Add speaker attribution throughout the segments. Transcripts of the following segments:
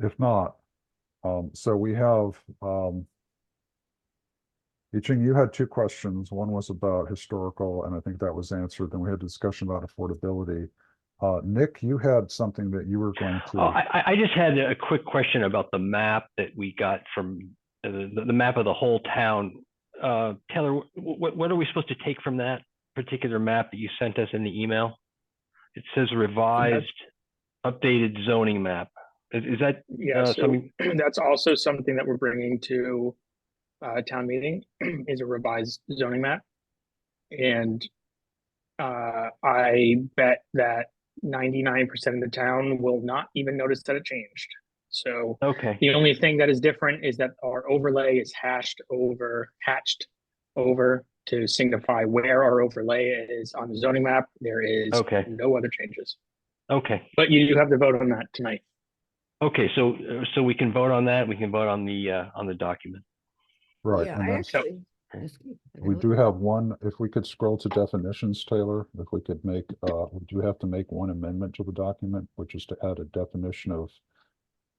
Speaker 1: If not, um, so we have, um, Yicheng, you had two questions. One was about historical, and I think that was answered. Then we had discussion about affordability. Uh, Nick, you had something that you were going
Speaker 2: Oh,
Speaker 1: to.
Speaker 2: I, I- I just had a quick question about the map that we got from, uh, the, the map of the whole town. Uh, Taylor, what, what are we supposed to take from that particular map that you sent us in the email? It says revised, updated zoning map. Is, is that,
Speaker 3: Yeah,
Speaker 2: uh,
Speaker 3: so
Speaker 2: something,
Speaker 3: that's also something that we're bringing to uh town meeting is a revised zoning map. And uh I bet that ninety-nine percent of the town will not even notice that it changed. So
Speaker 2: okay,
Speaker 3: the only thing that is different is that our overlay is hashed over, hatched over to signify where our overlay is on the zoning map. There is
Speaker 2: Okay.
Speaker 3: no other changes.
Speaker 2: okay.
Speaker 3: But you do have to vote on that tonight.
Speaker 2: Okay, so, uh, so we can vote on that, we can vote on the, uh, on the document.
Speaker 1: Right.
Speaker 4: Yeah,
Speaker 1: and
Speaker 4: I
Speaker 1: then-
Speaker 3: So-
Speaker 4: actually. excuse- I
Speaker 1: We
Speaker 4: gotta
Speaker 1: do
Speaker 4: look-
Speaker 1: have one, if we could scroll to definitions, Taylor, if we could make, uh, we do have to make one amendment to the document, which is to add a definition of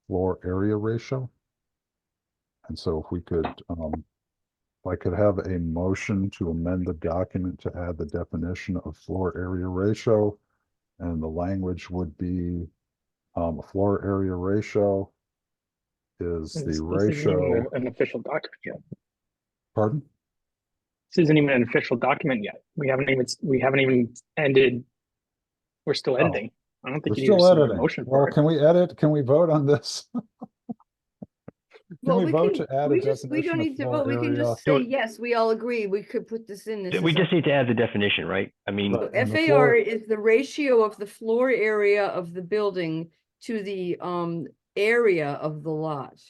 Speaker 1: floor area ratio. And so if we could, um, if I could have a motion to amend the document to add the definition of floor area ratio. And the language would be, um, floor area ratio is
Speaker 3: This-
Speaker 1: the
Speaker 3: this isn't even
Speaker 1: ratio,
Speaker 3: a- An official document yet.
Speaker 1: pardon?
Speaker 3: This isn't even an official document yet. We haven't even, we haven't even ended. We're still editing. I
Speaker 1: Oh.
Speaker 3: don't
Speaker 1: We're
Speaker 3: think you need
Speaker 1: still
Speaker 3: a
Speaker 1: editing.
Speaker 3: motion
Speaker 1: Well,
Speaker 3: for it.
Speaker 1: can we edit? Can we vote on this? Can
Speaker 4: Well,
Speaker 1: we
Speaker 4: we
Speaker 1: vote
Speaker 4: can-
Speaker 1: to add a
Speaker 4: we just- We
Speaker 1: definition
Speaker 4: don't
Speaker 1: of
Speaker 4: need to
Speaker 1: floor
Speaker 4: vote, we can
Speaker 1: area?
Speaker 4: just
Speaker 2: Do
Speaker 4: say,
Speaker 2: it.
Speaker 4: yes, we all agree, we could put this in. this
Speaker 2: We
Speaker 4: is a-
Speaker 2: just need to add the definition, right? I mean,
Speaker 1: Right. on the floor.
Speaker 4: FAR is the ratio of the floor area of the building to the, um, area of the lot,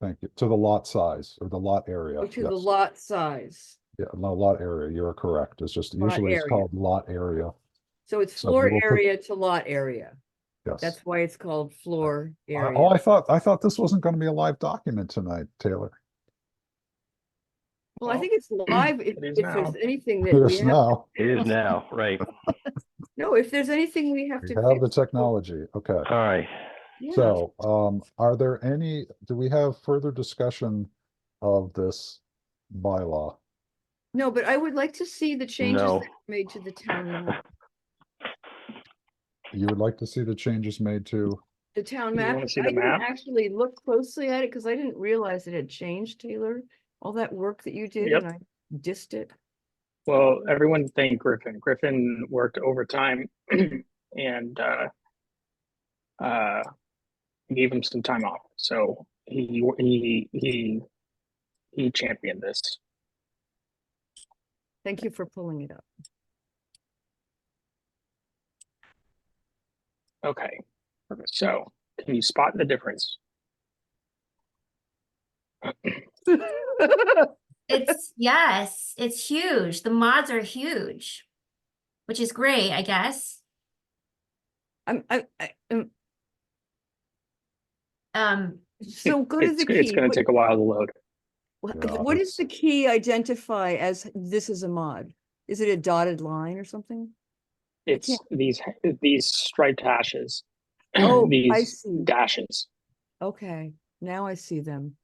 Speaker 1: Thank you. To the lot size or the lot area.
Speaker 4: or to the
Speaker 1: yes.
Speaker 4: lot size.
Speaker 1: Yeah, no, lot area, you're correct. It's just
Speaker 4: Lot
Speaker 1: usually it's
Speaker 4: area.
Speaker 1: called lot area.
Speaker 4: So it's
Speaker 1: So we
Speaker 4: floor
Speaker 1: will put-
Speaker 4: area to lot area,
Speaker 1: Yes.
Speaker 4: that's why it's called floor
Speaker 1: I-
Speaker 4: area.
Speaker 1: Oh, I thought, I thought this wasn't going to be a live document tonight, Taylor.
Speaker 4: Well, I
Speaker 3: Well,
Speaker 4: think it's live, if,
Speaker 3: it is
Speaker 4: if there's
Speaker 3: now.
Speaker 4: anything that
Speaker 1: It
Speaker 4: we
Speaker 1: is
Speaker 4: have,
Speaker 1: now.
Speaker 2: it is now, right?
Speaker 4: no, if there's anything we have
Speaker 1: We
Speaker 4: to.
Speaker 1: have the
Speaker 4: fix, we'll-
Speaker 1: technology. Okay.
Speaker 2: All right.
Speaker 4: yeah.
Speaker 1: So, um, are there any, do we have further discussion of this bylaw?
Speaker 4: No, but I would like to see the changes that
Speaker 2: No.
Speaker 4: were made to the town, map.
Speaker 1: You would like to see the changes made to?
Speaker 4: the town
Speaker 3: You
Speaker 4: map.
Speaker 3: wanna see
Speaker 4: I
Speaker 3: the
Speaker 4: didn't
Speaker 3: map?
Speaker 4: Actually look closely at it because I didn't realize it had changed, Taylor. All that work that you did
Speaker 3: Yep.
Speaker 4: and I dissed it.
Speaker 3: Well, everyone thank Griffin. Griffin worked overtime and uh. Uh, gave him some time off, so he, he, he. He championed this.
Speaker 4: Thank you for pulling it up.
Speaker 3: Okay. So can you spot the difference?
Speaker 5: It's yes, it's huge. The mods are huge, which is great, I guess.
Speaker 4: I'm, I, I, am
Speaker 5: Um,
Speaker 4: so go to
Speaker 3: It's-
Speaker 4: the key.
Speaker 3: It's gonna
Speaker 4: What-
Speaker 3: take a while to load.
Speaker 1: Yeah,
Speaker 4: What what
Speaker 1: it's-
Speaker 4: does the key identify as this is a mod? Is it a dotted line or something?
Speaker 3: It's these, these striped hashes.
Speaker 4: Oh, I
Speaker 3: These
Speaker 4: see.
Speaker 3: dashes.
Speaker 4: Okay, now I see them.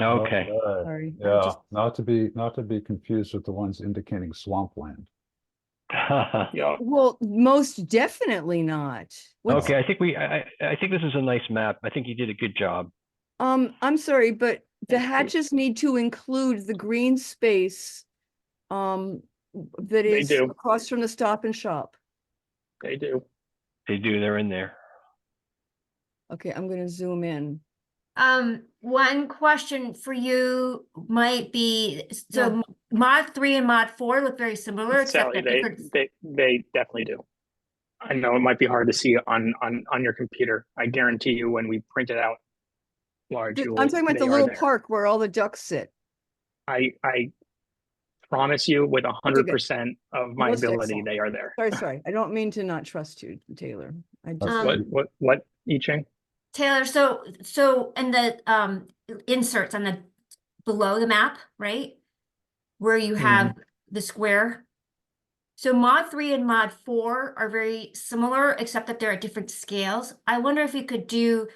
Speaker 2: Okay.
Speaker 4: Sorry. I
Speaker 1: Yeah,
Speaker 4: just-
Speaker 1: not to be, not to be confused with the ones indicating swampland.
Speaker 3: Yeah.
Speaker 4: Well, most definitely not. What's-
Speaker 2: Okay, I think we, I, I I think this is a nice map. I think you did a good job.
Speaker 4: Um, I'm sorry, but the
Speaker 3: Thank you.
Speaker 4: hatches need to include the green space. Um, w- that
Speaker 3: They
Speaker 4: is
Speaker 3: do.
Speaker 4: across from the Stop and Shop.
Speaker 3: They do.
Speaker 2: They do, they're in there.
Speaker 4: Okay, I'm gonna zoom in.
Speaker 5: um, one question for you might be, so
Speaker 4: Yeah.
Speaker 5: m- mod three and mod four look very similar, except
Speaker 3: Sally,
Speaker 5: that
Speaker 3: they,
Speaker 5: different.
Speaker 3: they, they definitely do. I know it might be hard to see on, on, on your computer. I guarantee you when we print it out. Large.
Speaker 4: The-
Speaker 3: you will-
Speaker 4: I'm talking about the
Speaker 3: they are
Speaker 4: little
Speaker 3: there.
Speaker 4: park where all the ducks sit.
Speaker 3: I, I promise you with a hundred
Speaker 4: good.
Speaker 3: percent of my
Speaker 4: Most
Speaker 3: ability,
Speaker 4: excellent.
Speaker 3: they are there.
Speaker 4: Sorry, sorry, I don't mean to not trust you, Taylor. I just,
Speaker 5: Um,
Speaker 3: What, what, what, I Ching?
Speaker 5: Taylor, so, so, and the, um, inserts on the, below the map, right? Where you have the square. So mod three and mod four are very similar, except that they're at different scales. I wonder if you could do